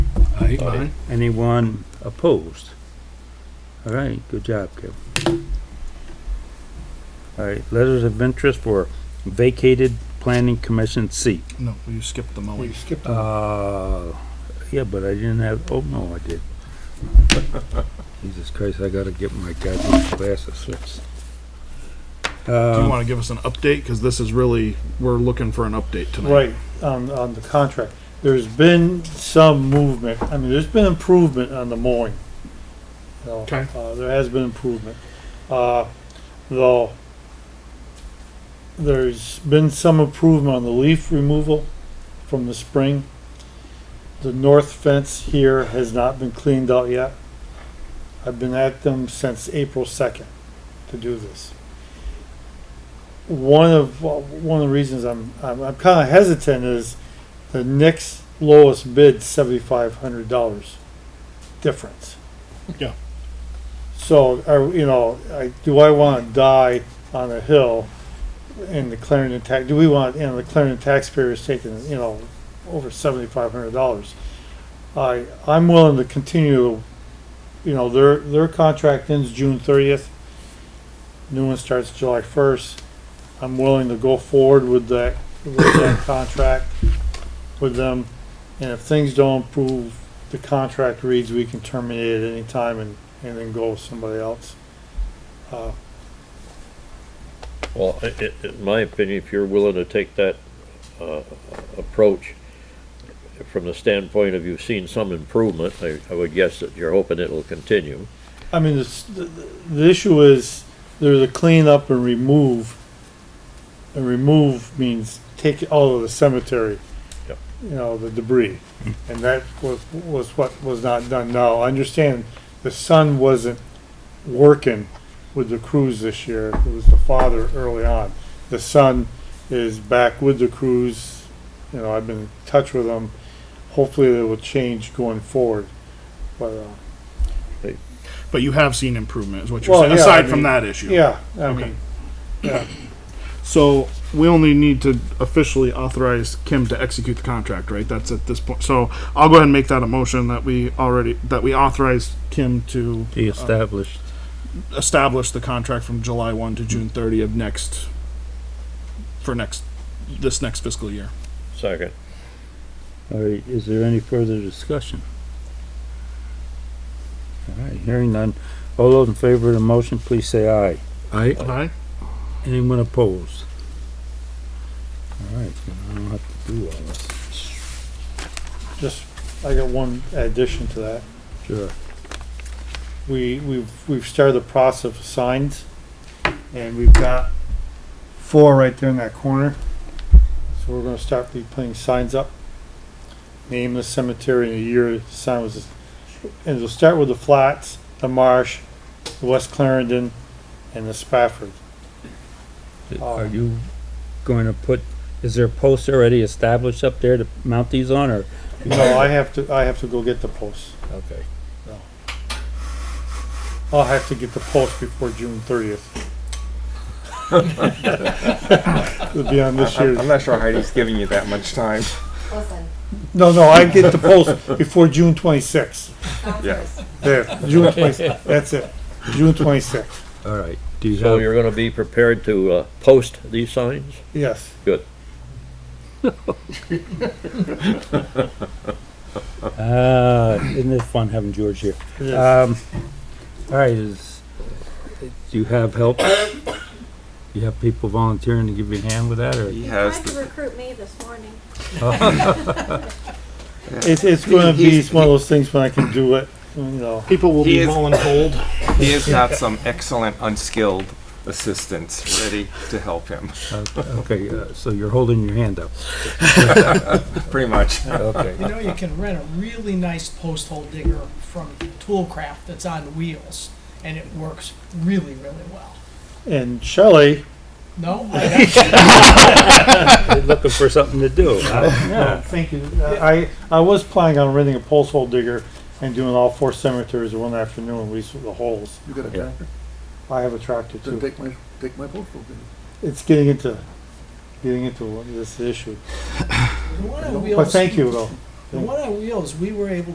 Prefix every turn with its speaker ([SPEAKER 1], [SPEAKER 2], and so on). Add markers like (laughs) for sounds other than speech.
[SPEAKER 1] Aye.
[SPEAKER 2] Aye.
[SPEAKER 3] Anyone opposed? All right, good job, Kevin. All right, letters of interest for vacated planning commission seat.
[SPEAKER 2] No, you skipped the
[SPEAKER 1] We
[SPEAKER 2] mowing.
[SPEAKER 1] skipped a
[SPEAKER 3] Uh, yeah, but I didn't have, oh, no, I did. (laughs) Jesus Christ, I gotta get my goddamn glasses fixed.
[SPEAKER 4] Um,
[SPEAKER 2] Do you
[SPEAKER 3] Uh,
[SPEAKER 2] want to give us an update? Because this is really, we're looking for an update tonight.
[SPEAKER 4] Right, on, on the contract. There's been some movement, I mean, there's been improvement on the mowing. You know,
[SPEAKER 2] Okay.
[SPEAKER 4] Uh, there has been improvement. Uh, though, there's been some improvement on the leaf removal from the spring. The north fence here has not been cleaned out yet. I've been at them since April second to do this. One of, one of the reasons I'm, I'm, I'm kinda hesitant is the next lowest bid, seventy-five hundred dollars difference.
[SPEAKER 2] Yeah.
[SPEAKER 4] So, I, you know, I, do I wanna die on a hill in the Clarendon tax, do we want, you know, the Clarendon taxpayers taking, you know, over seventy-five hundred dollars? I, I'm willing to continue, you know, their, their contract ends June thirtieth. New one starts July first. I'm willing to go forward with that, with that contract with them. And if things don't improve, the contract reads we can terminate at any time and, and then go with somebody else. Uh,
[SPEAKER 5] Well, i- i- in my opinion, if you're willing to take that uh, approach from the standpoint of you've seen some improvement, I I would guess that you're hoping it'll continue.
[SPEAKER 4] I mean, this, the, the issue is there's a clean up and remove. And remove means take it all of the cemetery.
[SPEAKER 5] Yep.
[SPEAKER 4] You know, the debris. And that was, was what was not done. Now, I understand the son wasn't working with the crews this year. It was the father early on. The son is back with the crews. You know, I've been in touch with him. Hopefully they will change going forward. But, uh,
[SPEAKER 2] But you have seen improvement, is what you're
[SPEAKER 4] Well,
[SPEAKER 2] saying,
[SPEAKER 4] yeah,
[SPEAKER 2] aside
[SPEAKER 4] I
[SPEAKER 2] from
[SPEAKER 4] mean,
[SPEAKER 2] that issue.
[SPEAKER 4] yeah, I
[SPEAKER 2] Okay.
[SPEAKER 4] mean,
[SPEAKER 2] So we only need to officially authorize Kim to execute the contract, right? That's at this point. So I'll go ahead and make that a motion that we already, that we authorize Kim to
[SPEAKER 3] the established,
[SPEAKER 2] establish the contract from July one to June thirty of next, for next, this next fiscal year.
[SPEAKER 5] Second.
[SPEAKER 3] all right, is there any further discussion? All right, hearing none. All those in favor of the motion, please say aye.
[SPEAKER 1] aye.
[SPEAKER 2] Aye.
[SPEAKER 3] Anyone opposed? All right, then I don't have to do all this.
[SPEAKER 4] just, I got one addition to that.
[SPEAKER 3] Sure.
[SPEAKER 4] We, we've, we've started the process of signs, and we've got four right there in that corner. So we're gonna start be putting signs up. Name the cemetery in a year, the sign was, and we'll start with the flats, the marsh, the West Clarendon, and the Spafford.
[SPEAKER 3] Are you going to put, is there posts already established up there to mount these on, or?
[SPEAKER 4] No, I have to, I have to go get the posts.
[SPEAKER 3] Okay.
[SPEAKER 4] I'll have to get the post before June (laughs) thirtieth. It'll be on this (laughs) year's.
[SPEAKER 6] I'm not sure Heidi's giving you that much time.
[SPEAKER 7] Listen,
[SPEAKER 4] No, no, I get the post before June twenty-sixth.
[SPEAKER 6] Yes.
[SPEAKER 4] There, June twenty-sixth, that's it. June twenty-sixth,
[SPEAKER 3] All right, do you
[SPEAKER 5] So
[SPEAKER 3] have,
[SPEAKER 5] you're gonna be prepared to uh, post these signs?
[SPEAKER 4] yes.
[SPEAKER 3] uh, isn't it fun having George here?
[SPEAKER 4] it is.
[SPEAKER 3] Um, all right, is, do you have help? You have people volunteering to give you a hand with that, or?
[SPEAKER 6] He has
[SPEAKER 7] tried
[SPEAKER 6] the
[SPEAKER 7] to recruit me this morning.
[SPEAKER 4] It's, it's gonna be, it's one of those things when I can do it, you know.
[SPEAKER 2] People will
[SPEAKER 6] He
[SPEAKER 2] be
[SPEAKER 6] is-
[SPEAKER 2] mulling hold.
[SPEAKER 6] he has got some excellent unskilled assistants ready to help him.
[SPEAKER 3] Okay, uh, so you're holding your hand up.
[SPEAKER 6] Pretty much.
[SPEAKER 3] Okay.
[SPEAKER 8] You
[SPEAKER 3] (laughs)
[SPEAKER 8] know, you can rent a really nice post hole digger from Toolcraft that's on wheels, and it works really, really well.
[SPEAKER 4] And Shelley, (laughs)
[SPEAKER 8] No, I,
[SPEAKER 3] Looking for something to do, huh?
[SPEAKER 4] yeah, thank you. I, I was planning on renting a pulse hole digger and doing all four cemeteries in one afternoon, we, s- the holes.
[SPEAKER 9] You got a
[SPEAKER 3] Yeah.
[SPEAKER 9] tractor?
[SPEAKER 4] I have a tractor too.
[SPEAKER 9] Then take my, take my boat over.
[SPEAKER 4] it's getting into getting into this issue.
[SPEAKER 8] the one on
[SPEAKER 4] But
[SPEAKER 8] wheels,
[SPEAKER 4] thank you though.
[SPEAKER 8] The one on wheels, we were able